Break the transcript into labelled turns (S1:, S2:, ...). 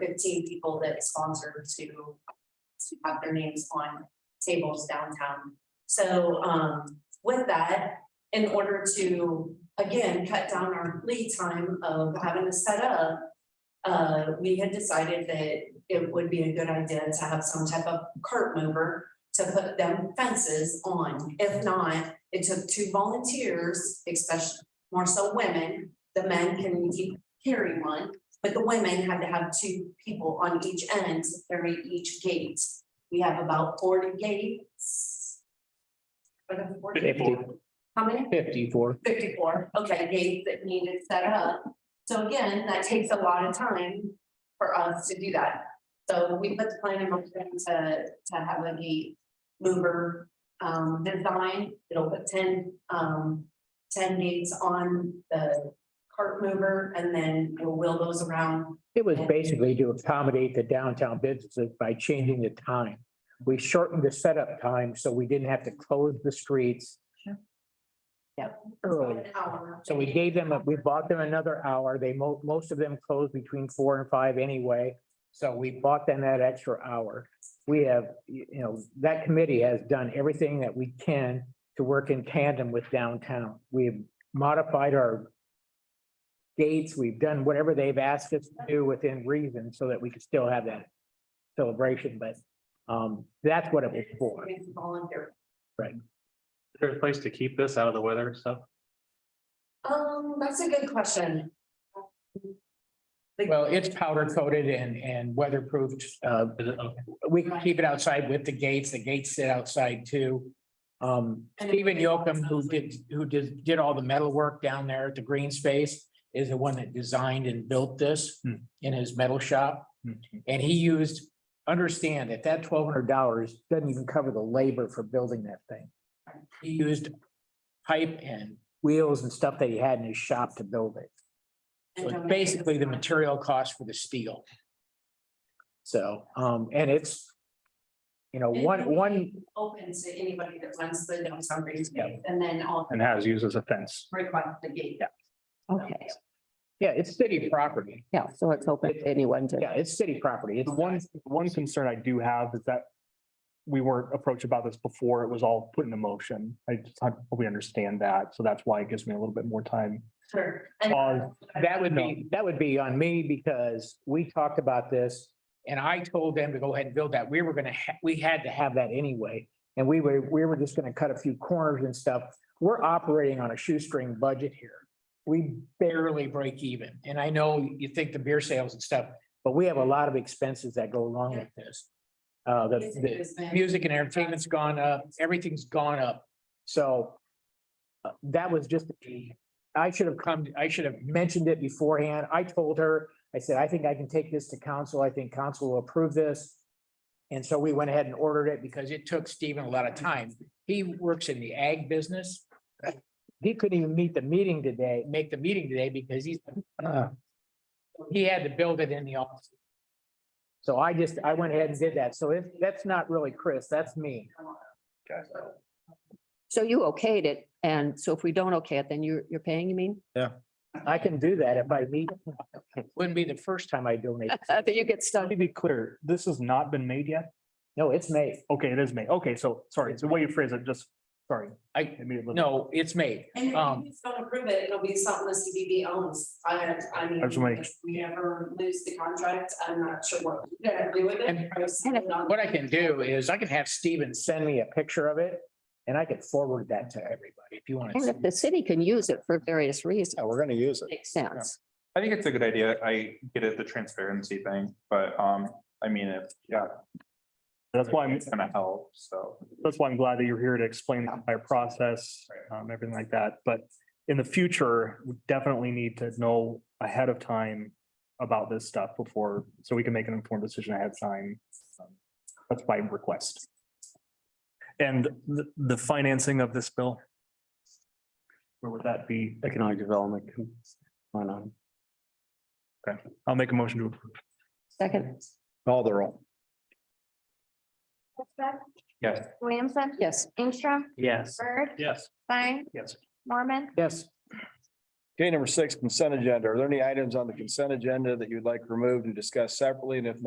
S1: fifteen people that sponsored to to have their names on tables downtown. So um with that, in order to, again, cut down our lead time of having to set up. Uh, we had decided that it would be a good idea to have some type of cart mover to put them fences on. If not, it took two volunteers, especially more so women, the men can keep carrying one. But the women had to have two people on each end to carry each gate. We have about forty gates. What are the 40?
S2: Fifty.
S1: How many?
S2: Fifty-four.
S1: Fifty-four, okay, gates that needed set up. So again, that takes a lot of time for us to do that. So we put the plan in motion to, to have a gate mover, um, design. It'll put ten, um, ten gates on the cart mover and then we'll wheel those around.
S2: It was basically to accommodate the downtown businesses by changing the time. We shortened the setup time so we didn't have to close the streets.
S1: Yep.
S2: Early.
S1: An hour.
S2: So we gave them, a- we bought them another hour. They mo- most of them closed between four and five anyway. So we bought them that extra hour. We have, you you know, that committee has done everything that we can to work in tandem with downtown. We've modified our gates. We've done whatever they've asked us to do within reason so that we could still have that celebration, but um, that's what it was for.
S1: It's Volunteer.
S3: Is there a place to keep this out of the weather and stuff?
S1: Um, that's a good question.
S2: Well, it's powder coated and, and weatherproofed, uh,
S3: Is it, okay,
S2: we can keep it outside with the gates. The gates sit outside too. Um, Stephen Yocum, who did, who did, did all the metal work down there at the green space, is the one that designed and built this
S3: Hmm.
S2: in his metal shop.
S3: Hmm.
S2: And he used, understand that that twelve hundred dollars doesn't even cover the labor for building that thing. He used pipe and wheels and stuff that he had in his shop to build it. So it's basically the material cost for the steel. So, um, and it's, you know, one, one,
S1: Open to anybody that runs the downtown green space
S2: Yeah.
S1: and then all
S3: And has used as a fence.
S1: request the gate.
S4: Okay,
S2: yeah, it's city property.
S4: yeah, so it's open to anyone to,
S2: Yeah, it's city property. It's
S5: The one,
S2: one,
S5: the one concern I do have is that we weren't approached about this before it was all put into motion. I just, I hope we understand that. So that's why it gives me a little bit more time.
S1: Sure. And
S5: Uh,
S2: that would be, that would be on me because we talked about this. And I told them to go ahead and build that. We were gonna, ha- we had to have that anyway. And we were, we were just gonna cut a few corners and stuff. We're operating on a shoestring budget here. We barely break even. And I know you think the beer sales and stuff, but we have a lot of expenses that go along with this. Uh, the,
S1: Music
S2: the,
S1: has been-
S2: music and entertainment's gone up, everything's gone up, so. uh, That was just, I should have come, I should have mentioned it beforehand, I told her, I said, I think I can take this to council, I think council will approve this. And so we went ahead and ordered it because it took Stephen a lot of time, he works in the ag business. He couldn't even meet the meeting today, make the meeting today because he's, uh, he had to build it in the office. So I just, I went ahead and did that. So it, that's not really Chris, that's me.
S4: so you okayed it, and so if we don't okay it, then you're, you're paying, you mean?
S2: I can do that if I need. Wouldn't be the first time I donate.
S4: That you get
S5: Let
S4: stuck,
S5: me be clear, this has not been made yet.
S2: No, it's May.
S5: Okay, it is made. Okay, so sorry, it's the way you phrase it, just, sorry.
S2: I,
S5: it made it a little-
S2: no, it's May.
S1: And if
S2: Um,
S1: you just don't approve it, it'll be something the CBB owns. I, I mean,
S5: I just wanna-
S1: if we ever lose the contract, I'm not sure what we're gonna do with it.
S2: And-
S1: I was thinking on-
S2: What I can do is I can have Steven send me a picture of it and I could forward that to everybody if you want
S4: and
S2: to.
S4: if the city can use it for various reasons,
S6: Yeah,
S2: Oh,
S6: we're gonna use it.
S4: makes sense.
S7: I think it's a good idea. I get it, the transparency thing, but um, I mean, if, yeah,
S5: That's why I'm,
S7: it's gonna help, so.
S5: that's why I'm glad that you're here to explain the entire process, um, everything like that. But in the future, we definitely need to know ahead of time about this stuff before, so we can make an informed decision ahead of time. Um, That's my request. And the, the financing of this bill? Where would that be?
S6: Economic development. Why not?
S5: I'll make a motion to approve.
S4: Second,
S6: Call the roll.
S8: Westbeck,
S7: Yes.
S8: Williamson,
S4: yes,
S8: Ingstrom,
S5: Yes.
S8: Bird,
S3: Yes.
S8: Stein,
S5: Yes.
S8: Mormon,
S2: Yes,
S6: Okay, number six, consent agenda. Are there any items on the consent agenda that you'd like removed and discussed separately? And if not,